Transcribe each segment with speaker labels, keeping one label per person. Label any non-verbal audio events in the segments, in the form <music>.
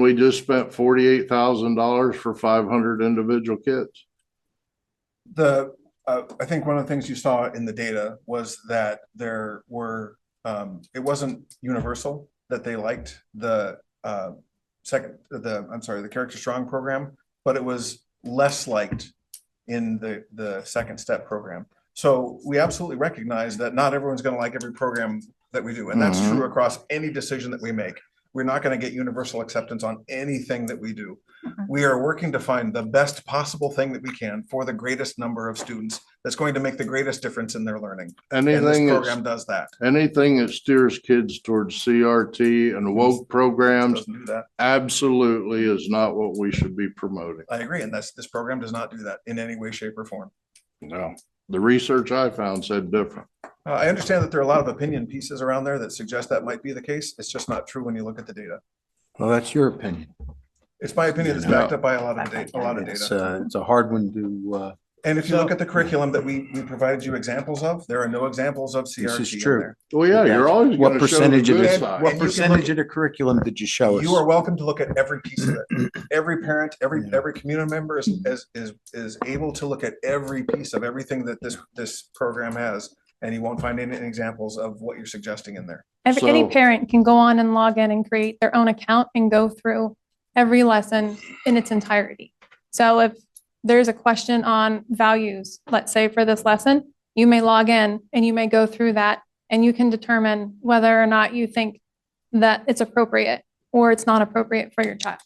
Speaker 1: we just spent forty-eight thousand dollars for five hundred individual kits.
Speaker 2: The, uh, I think one of the things you saw in the data was that there were, um, it wasn't universal that they liked the, uh, second, the, I'm sorry, the Character Strong program, but it was less liked in the, the second step program. So we absolutely recognize that not everyone's gonna like every program that we do, and that's
Speaker 1: Mhm.
Speaker 2: true across any decision that we make. We're not gonna get universal acceptance on anything that we do. We are working to find the best possible thing that we can for the greatest number of students that's going to make the greatest difference in their learning. And this
Speaker 1: Anything
Speaker 2: program
Speaker 1: that's,
Speaker 2: does that.
Speaker 1: anything that steers kids towards CRT and woke programs
Speaker 2: Doesn't do that.
Speaker 1: absolutely is not what we should be promoting.
Speaker 2: I agree, and that's, this program does not do that in any way, shape, or form.
Speaker 1: No. The research I found said different.
Speaker 2: Uh, I understand that there are a lot of opinion pieces around there that suggest that might be the case. It's just not true when you look at the data.
Speaker 3: Well, that's your opinion.
Speaker 2: It's my opinion, it's backed up by a lot of data, a lot of
Speaker 3: It's,
Speaker 2: data.
Speaker 3: uh, it's a hard one to, uh,
Speaker 2: And if you look at the curriculum that we, we provided you examples of, there are no examples of
Speaker 3: is
Speaker 2: CRT in
Speaker 3: true.
Speaker 2: there.
Speaker 1: Well, yeah, you're always
Speaker 3: What
Speaker 1: gonna show the
Speaker 3: percentage of
Speaker 1: good
Speaker 2: Well,
Speaker 3: it-
Speaker 1: side.
Speaker 2: you
Speaker 3: what
Speaker 2: can look
Speaker 3: percentage
Speaker 2: at-
Speaker 3: of the curriculum did you show us?
Speaker 2: You are welcome to look at every piece of
Speaker 1: <clears throat>
Speaker 2: it. Every parent, every,
Speaker 3: Yeah.
Speaker 2: every community member is, is, is, is able to look at every piece of everything that this, this program has. And you won't find any examples of what you're suggesting in there.
Speaker 4: Every, any
Speaker 1: So-
Speaker 4: parent can go on and log in and create their own account and go through every lesson in its entirety. So if there's a question on values, let's say for this lesson, you may log in and you may go through that and you can determine whether or not you think that it's appropriate or it's not appropriate for your child.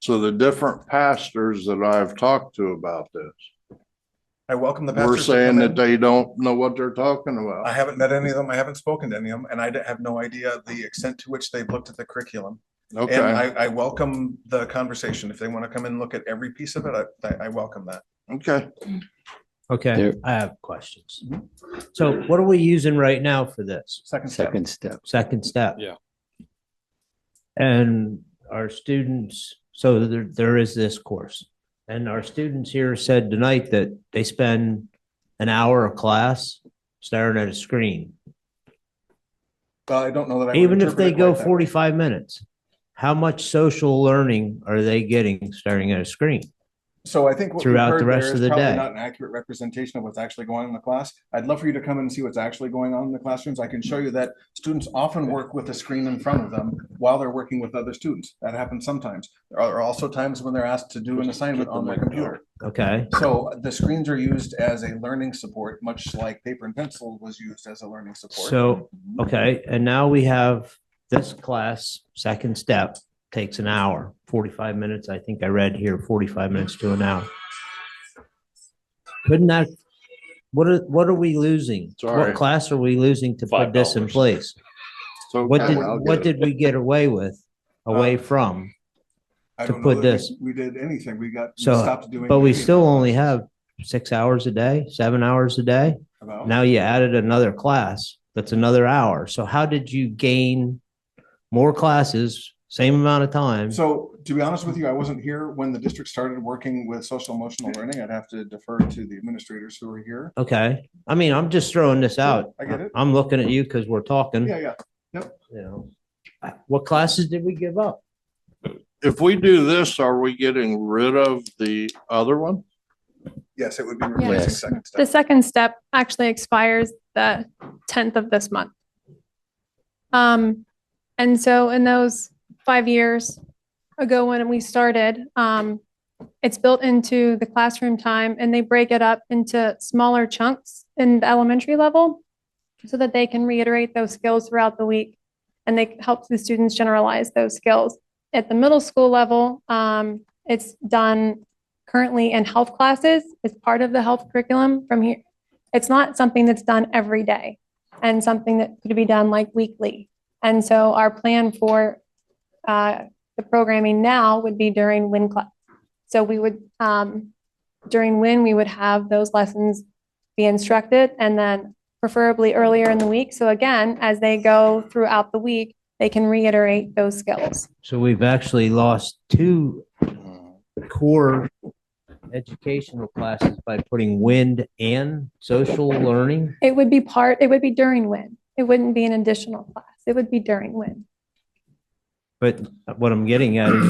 Speaker 1: So the different pastors that I've talked to about this,
Speaker 2: I welcome the
Speaker 1: were
Speaker 2: pastors. to
Speaker 1: saying
Speaker 2: come
Speaker 1: that
Speaker 2: in.
Speaker 1: they don't know what they're talking
Speaker 2: I
Speaker 1: about.
Speaker 2: haven't met any of them. I haven't spoken to any of them, and I d- have no idea the extent to which they've looked at the curriculum. And
Speaker 1: Okay,
Speaker 2: I, I welcome the conversation. If they want to come and look at every piece of it, I- I, I welcome that.
Speaker 1: okay.
Speaker 5: Okay,
Speaker 3: There-
Speaker 5: I have questions. So what are we using right now for this
Speaker 2: Second step.
Speaker 3: Second step.
Speaker 5: second step?
Speaker 6: Yeah.
Speaker 5: And our students, so there, there is this course. And our students here said tonight that they spend an hour of class staring at a screen.
Speaker 2: Well, I don't know that. I would
Speaker 5: Even if
Speaker 2: interpret
Speaker 5: they
Speaker 2: it
Speaker 5: go
Speaker 2: like that.
Speaker 5: forty-five minutes, how much social learning are they getting staring at a screen?
Speaker 2: So I think what we've
Speaker 5: throughout the
Speaker 2: heard
Speaker 5: rest
Speaker 2: there
Speaker 5: of
Speaker 2: is
Speaker 5: the
Speaker 2: probably
Speaker 5: day.
Speaker 2: not an accurate representation of what's actually going on in the class. I'd love for you to come and see what's actually going on in the classrooms. I can show you that students often work with a screen in front of them while they're working with other students. That happens sometimes. There are also times when they're asked to do an assignment on their computer.
Speaker 5: Okay,
Speaker 2: So the screens are used as a learning support, much like paper and pencil was used as a learning support.
Speaker 5: so, okay, and now we have this class, second step, takes an hour, forty-five minutes, I think I read here, forty-five minutes to an hour. Couldn't that, what are, what are we losing?
Speaker 1: Sorry.
Speaker 5: What class are we losing to put
Speaker 6: Five
Speaker 5: this in
Speaker 6: hours.
Speaker 5: place?
Speaker 1: So
Speaker 5: What did,
Speaker 1: I'll get
Speaker 5: what
Speaker 1: it. Uh,
Speaker 5: did we get away with, away from?
Speaker 2: I
Speaker 5: to
Speaker 2: don't know
Speaker 5: put
Speaker 2: that
Speaker 5: this-
Speaker 2: we- We did anything. We got. we
Speaker 5: So,
Speaker 2: stopped doing
Speaker 5: But we
Speaker 2: anything
Speaker 5: still only have six hours a day, seven hours a day?
Speaker 2: about-
Speaker 5: Now you added another class, that's another hour. So how did you gain more classes, same amount of time?
Speaker 2: So to be honest with you, I wasn't here when the district started working with social emotional learning. I'd have to defer to the administrators who are here.
Speaker 5: Okay, I mean, I'm just throwing this out.
Speaker 2: I get it.
Speaker 5: I'm looking at you because we're talking,
Speaker 2: Yeah,
Speaker 5: you
Speaker 2: yeah.
Speaker 5: know. What classes did we give up?
Speaker 1: If we do this, are we getting rid of the other one?
Speaker 2: Yes, it would be replacing
Speaker 3: Yes.
Speaker 2: second
Speaker 4: The
Speaker 2: step.
Speaker 4: second step actually expires the tenth of this month. Um, and so in those five years ago when we started, um, it's built into the classroom time and they break it up into smaller chunks in the elementary level so that they can reiterate those skills throughout the week and they help the students generalize those skills. At the middle school level, um, it's done currently in health classes. It's part of the health curriculum from here. It's not something that's done every day and something that could be done like weekly. And so our plan for uh, the programming now would be during WIN class. So we would, um, during WIN, we would have those lessons be instructed and then preferably earlier in the week. So again, as they go throughout the week, they can reiterate those skills.
Speaker 5: So we've actually lost two core educational classes by putting wind and social learning.
Speaker 4: It would be part, it would be during WIN. It wouldn't be an additional class. It would be during WIN.
Speaker 5: But what I'm getting at is